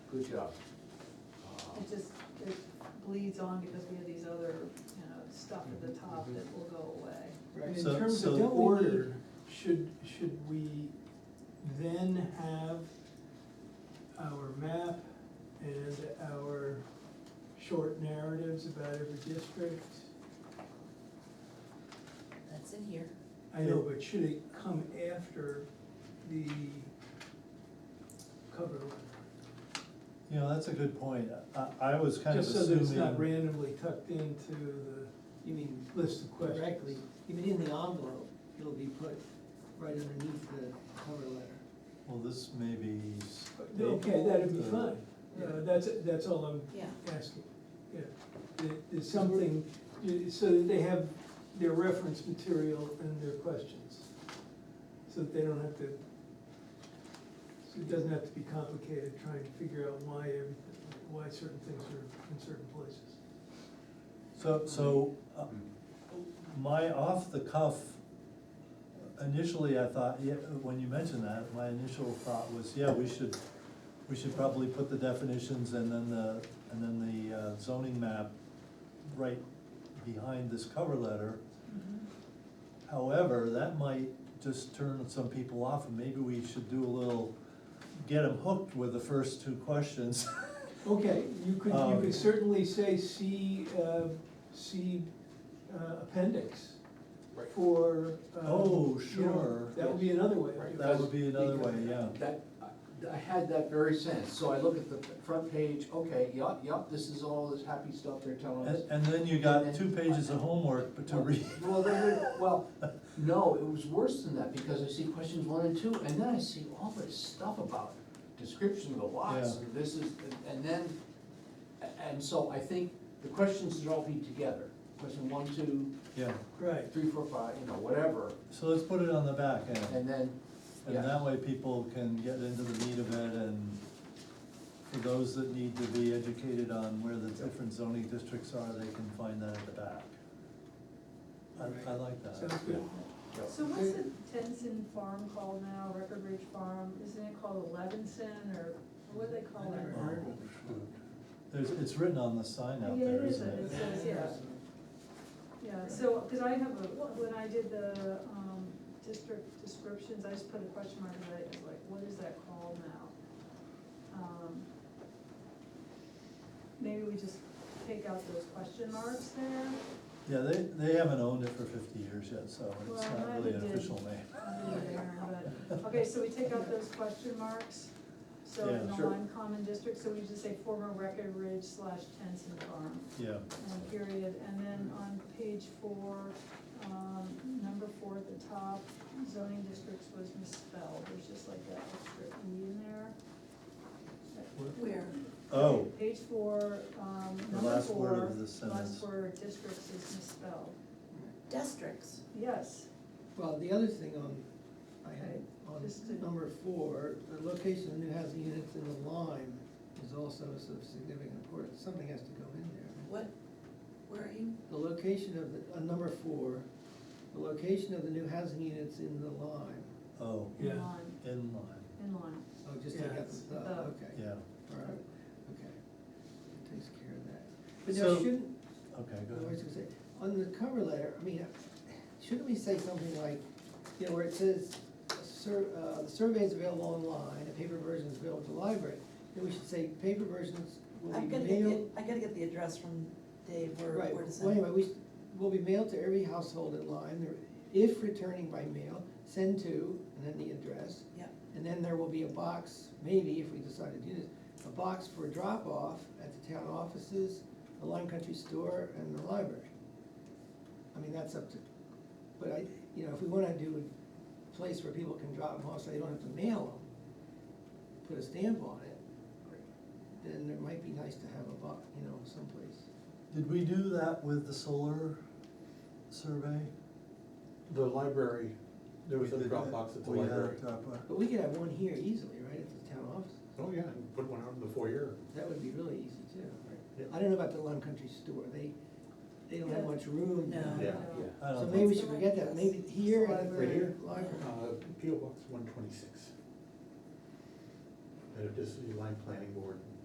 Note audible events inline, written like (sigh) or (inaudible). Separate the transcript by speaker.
Speaker 1: good job.
Speaker 2: It just, it bleeds on because we have these other, you know, stuff at the
Speaker 3: Mm-hmm.
Speaker 2: top that will go away.
Speaker 4: And in
Speaker 5: So-
Speaker 4: terms
Speaker 5: so
Speaker 4: of
Speaker 5: the
Speaker 4: don't we need,
Speaker 5: order-
Speaker 4: should, should we then have our map and our short narratives about every district?
Speaker 6: That's in here.
Speaker 4: I know, but should it come after the cover letter?
Speaker 5: You know, that's a good point. I, I was kind of
Speaker 4: Just so that it's not
Speaker 5: assuming,
Speaker 4: randomly tucked into the
Speaker 3: You mean
Speaker 4: list of questions.
Speaker 3: directly, even in the envelope, it'll be put right underneath the cover letter.
Speaker 5: well, this may be.
Speaker 4: Okay, that'd be
Speaker 5: stapled, uh,
Speaker 4: fine, Uh, that's, that's all I'm
Speaker 6: Yeah.
Speaker 4: asking, yeah. There- There's something, so that they have their reference material and their questions. So that they don't have to, so it doesn't have to be complicated trying to figure out why everything, why certain things are in certain places.
Speaker 5: So, so, uh,
Speaker 1: Mm.
Speaker 5: my off the cuff, initially I thought, yeah, when you mentioned that, my initial thought was, yeah, we should, we should probably put the definitions and then the, and then the uh, zoning map right behind this cover letter.
Speaker 2: Mm-hmm.
Speaker 5: However, that might just turn some people off and maybe we should do a little, get them hooked with the first two questions. (laughs)
Speaker 4: Okay, you could, you
Speaker 5: Um,
Speaker 4: could certainly say, see, uh, see uh, appendix
Speaker 1: Right.
Speaker 4: for, um,
Speaker 5: Oh,
Speaker 4: you know,
Speaker 5: sure.
Speaker 4: That would be another way. of
Speaker 1: Right.
Speaker 4: doing it.
Speaker 5: That would be another way, yeah.
Speaker 1: Uh, That, I- I had that very sense, so I look at the front page, okay, yup, yup, this is all this happy stuff they're telling us.
Speaker 5: And, and then you got two pages of homework but to read. (laughs)
Speaker 1: Well, they were- well, no, it was worse than that, because I see questions one and two, and then I see all this stuff about description of the lots,
Speaker 5: Yeah.
Speaker 1: and this is, and- and then, a- and so I think the questions should all be together. Question one, two,
Speaker 5: Yeah,
Speaker 4: Right.
Speaker 1: three, four, five, you know, whatever,
Speaker 5: so let's put it on the back end,
Speaker 1: and then,
Speaker 5: and that way people can get into the meat of it and for those that need to be educated on where the different zoning districts are, they can find that at the back. I, I like
Speaker 4: Sounds
Speaker 5: that.
Speaker 4: good.
Speaker 1: yeah.
Speaker 2: So what's the Tenson farm called now, Record Ridge Farm, isn't it called Levinson, or what do they call
Speaker 3: I
Speaker 2: it?
Speaker 3: never
Speaker 5: Oh, shoot. There's, it's written on the sign out
Speaker 2: Yeah, it
Speaker 5: there,
Speaker 2: is,
Speaker 5: isn't
Speaker 2: it
Speaker 5: it?
Speaker 2: is. says, yeah. Yeah, so, cause I have a, when I did the, um, district descriptions, I just put a question mark, and I was like, what is that called now? Um, Maybe we just take out those question marks there,
Speaker 5: Yeah, they, they haven't owned it for fifty years yet, so it's
Speaker 2: Well,
Speaker 5: not really an
Speaker 2: neither did-
Speaker 5: official name.
Speaker 2: under there, but, okay, so we take out those question marks. So in
Speaker 5: Yeah,
Speaker 2: the
Speaker 1: sure.
Speaker 2: Lime Common District, so we just say former Record Ridge slash Tenson Farm.
Speaker 5: Yeah,
Speaker 2: And period, and then on page four, um, number four at the top, zoning districts was misspelled, there's just like that extra E in there.
Speaker 6: Where?
Speaker 5: oh,
Speaker 2: Page four, um,
Speaker 5: The
Speaker 2: number
Speaker 5: last word
Speaker 2: four,
Speaker 5: of the sentence.
Speaker 2: last word, districts is misspelled,
Speaker 6: Districts.
Speaker 2: yes,
Speaker 3: Well, the other thing on, I had,
Speaker 2: Just to-
Speaker 3: on number four, the location of new housing units in the Lime is also of significant importance, something has to go in there.
Speaker 6: What, where are you?
Speaker 3: The location of the, on number four, the location of the new housing units in the Lime,
Speaker 5: oh,
Speaker 2: in
Speaker 4: Yeah.
Speaker 2: line,
Speaker 5: in line,
Speaker 2: in line.
Speaker 3: oh, just take
Speaker 4: Yeah.
Speaker 3: out the,
Speaker 2: The-
Speaker 3: uh, okay.
Speaker 5: yeah,
Speaker 3: All right, okay, that takes care of that. But
Speaker 5: So-
Speaker 3: now, shouldn't,
Speaker 5: okay,
Speaker 3: I
Speaker 5: go
Speaker 3: was
Speaker 5: ahead.
Speaker 3: gonna say, on the cover letter, I mean, shouldn't we say something like, you know, where it says, sur, uh, the survey is available online, a paper version is available at the library, then we should say, paper versions will
Speaker 6: I've
Speaker 3: be
Speaker 6: gotta get, the-
Speaker 3: mailed.
Speaker 6: I gotta get the address from Dave, where,
Speaker 3: Right,
Speaker 6: where does
Speaker 3: well, anyway,
Speaker 6: that?
Speaker 3: we, should- will be mailed to every household in line, There- if returning by mail, send to, and then the address,
Speaker 6: Yeah,
Speaker 3: and then there will be a box, maybe if we decide to do this, a box for drop-off at the town offices, the Lime Country Store, and the library. I mean, that's up to, but I, you know, if we wanna do a place where people can drop them off, so they don't have to mail them, put a stamp on it, then it might be nice to have a box, you know, someplace.
Speaker 5: Did we do that with the solar survey?
Speaker 7: The library, there was a
Speaker 5: We did that.
Speaker 7: Dropbox at the
Speaker 5: We had uh, a
Speaker 7: library.
Speaker 5: Dropbox.
Speaker 3: But we could have one here easily, right, at the town office,
Speaker 7: Oh, yeah, and put one out in the foyer.
Speaker 3: that would be really easy too,
Speaker 7: Yeah.
Speaker 3: right? I don't know about the Lime Country Store, they, they don't have much room.
Speaker 6: No.
Speaker 2: Yeah.
Speaker 7: Yeah, yeah.
Speaker 5: I
Speaker 3: So
Speaker 5: don't
Speaker 3: maybe
Speaker 5: think,
Speaker 3: we should forget that, maybe here and at the
Speaker 7: Right here?
Speaker 3: library.
Speaker 7: Uh, P O Box one twenty-six. And it just, the line planning board.